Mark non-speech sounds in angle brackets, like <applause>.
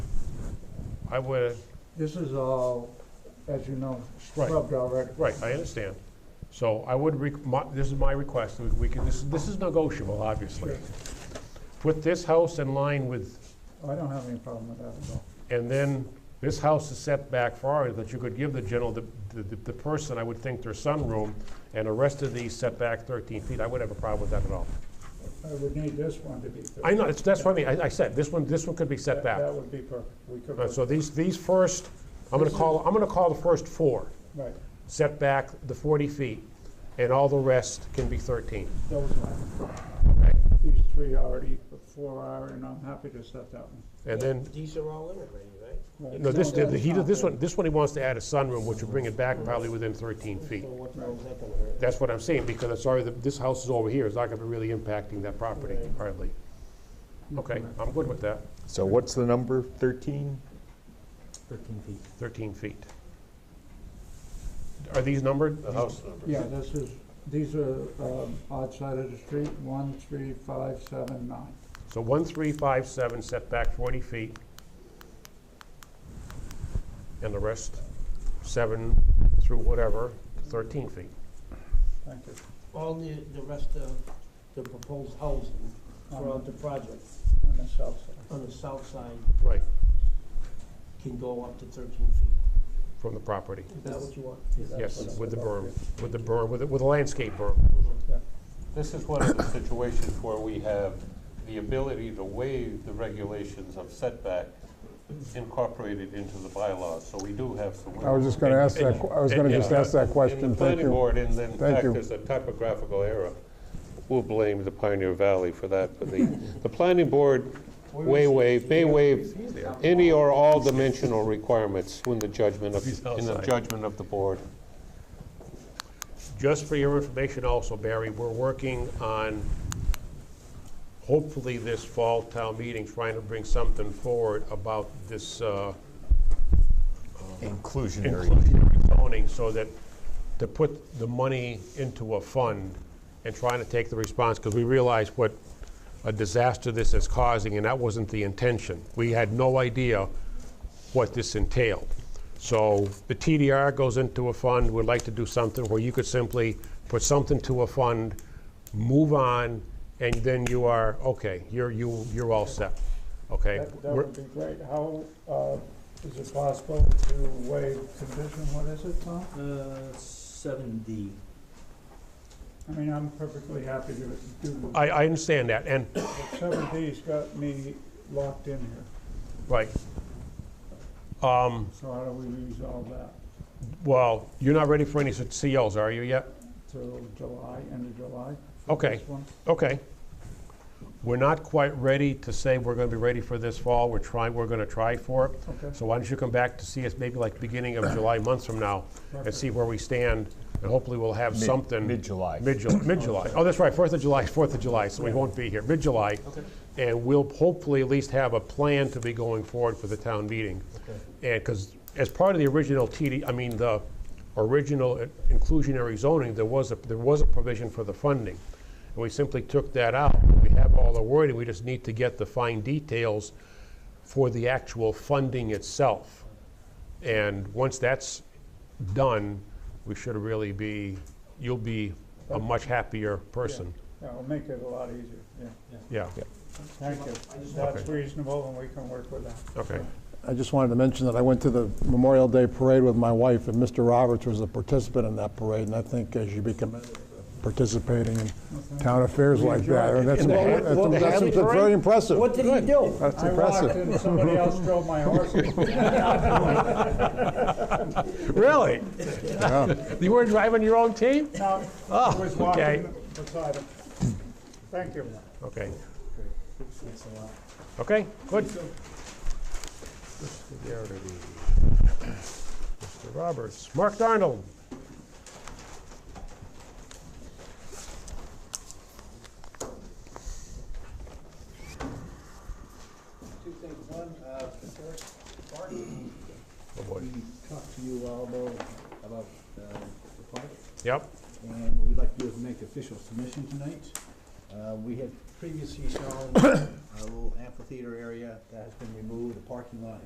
I would, This is all, as you know, Right. scrubbed already. right, I understand. So I would, rec- my- this is my request, we- we can, this, this is negotiable, obviously. Put this house in line with, I don't have any problem with that at all. and then this house is set back far, that you could give the general, the, the, the person, I would think, their sunroom, and the rest of these set back thirteen feet, I wouldn't have a problem with that at all. I would need this one to be. filled. I know, it's- that's what I mean, I, I said, this one, this one could be set That- back. That would be perfect. We could, All right, work- So these, these first, I'm gonna call, I'm gonna call the first four, right, set back the forty feet, and all the rest can be thirteen. those ones. These three already, the four are, and I'm happy to set that one. And then, These are all immigrating, right? Right. no, this, the- he, that's this not one, this one he wants to add a sunroom, which would bring it back probably within thirteen feet. So what the hell is that gonna hurt? That's what I'm saying, because I'm sorry, that this house is over here, it's not gonna be really impacting that property Right. hardly. Okay, I'm good with that, So what's the number, 13? Thirteen feet. thirteen feet. Are these numbered? The house number. Yeah, this is, these are um, odd side of the street, one, three, five, seven, nine. So one, three, five, seven, setback forty feet. And the rest, seven through whatever, thirteen feet. Thank you. All the, the rest of the proposed housing throughout the project On the south side. on the south side Right. can go up to thirteen feet. From the property, Is that what you want? yes, with the berm, with the berm, with the, with the landscape berm. This is one of the situations where we have the ability to waive the regulations of setback incorporated into the bylaws, so we do have some. I was just going to ask that, I was going to just ask that In question, the thank planning you. board, and then, in Thank fact, you. there's a typographical error. We'll blame the Pioneer Valley for that, but the, the planning board way waive, may waive any or all dimensional requirements when the judgment of, He's in the outside. judgment of the board. Just for your information also, Barry, we're working on, hopefully this fall town meeting, trying to bring something forward about this, uh, Inclusionary. inclusionary zoning so that, to put the money into a fund and trying to take the response, because we realize what a disaster this is causing, and that wasn't the intention. We had no idea what this entailed. So the TDR goes into a fund, we'd like to do something where you could simply put something to a fund, move on, and then you are, okay, you're, you, you're all set, okay? That that We're- would be great. How, uh, is it possible to waive condition, what is it, Tom? Uh, seven D. I mean, I'm perfectly happy to do I, I understand that, and, it. Seven D's got me locked in here, right. Um, so how do we resolve that? Well, you're not ready for any such COs, are you yet? Till July, end of July? Okay. This one? Okay. We're not quite ready to say we're gonna be ready for this fall, we're trying, we're gonna try for it. Okay. So why don't you come back to see us maybe like beginning of July, months from now, and see where we stand, and hopefully we'll have Mid- something. mid-July. <coughs> Mid-July, mid-July. Oh, that's right, Fourth of July, Fourth of July, so we won't be here, mid-July. And we'll hopefully at least have a plan to be going forward for the town meeting. And, because as part of the original TD, I mean, the original uh, inclusionary zoning, there was a, there was a provision for the funding. And we simply took that out. We have all the wording, we just need to get the fine details for the actual funding itself. And once that's done, we should really be, you'll be a much happier person. Yeah, it'll make it a lot easier, yeah. Yeah, Thank you. That's reasonable, and we can work with that. okay. I just wanted to mention that I went to the Memorial Day Parade with my wife, and Mr. Roberts was a participant in that parade, and I think as you become participating in town affairs like that, and that's, In the Hadley- that's- well, the that's- Hadley that's very parade? impressive. What did he do? That's I walked impressive. and somebody else drove <laughs> my horse. Really? You were driving your own team? Oh, No, I was okay. Oh. walking beside him. Thank you. Okay. Okay, good. Mr. Roberts, Mark Darnold. Two things, one, uh, first, Marty, Oh, boy. we talked to you all about, about, uh, the park, Yep, and what we'd like to do is make the official submission tonight. Uh, we uh, had previously shown a little amphitheater area that has been removed, the parking lot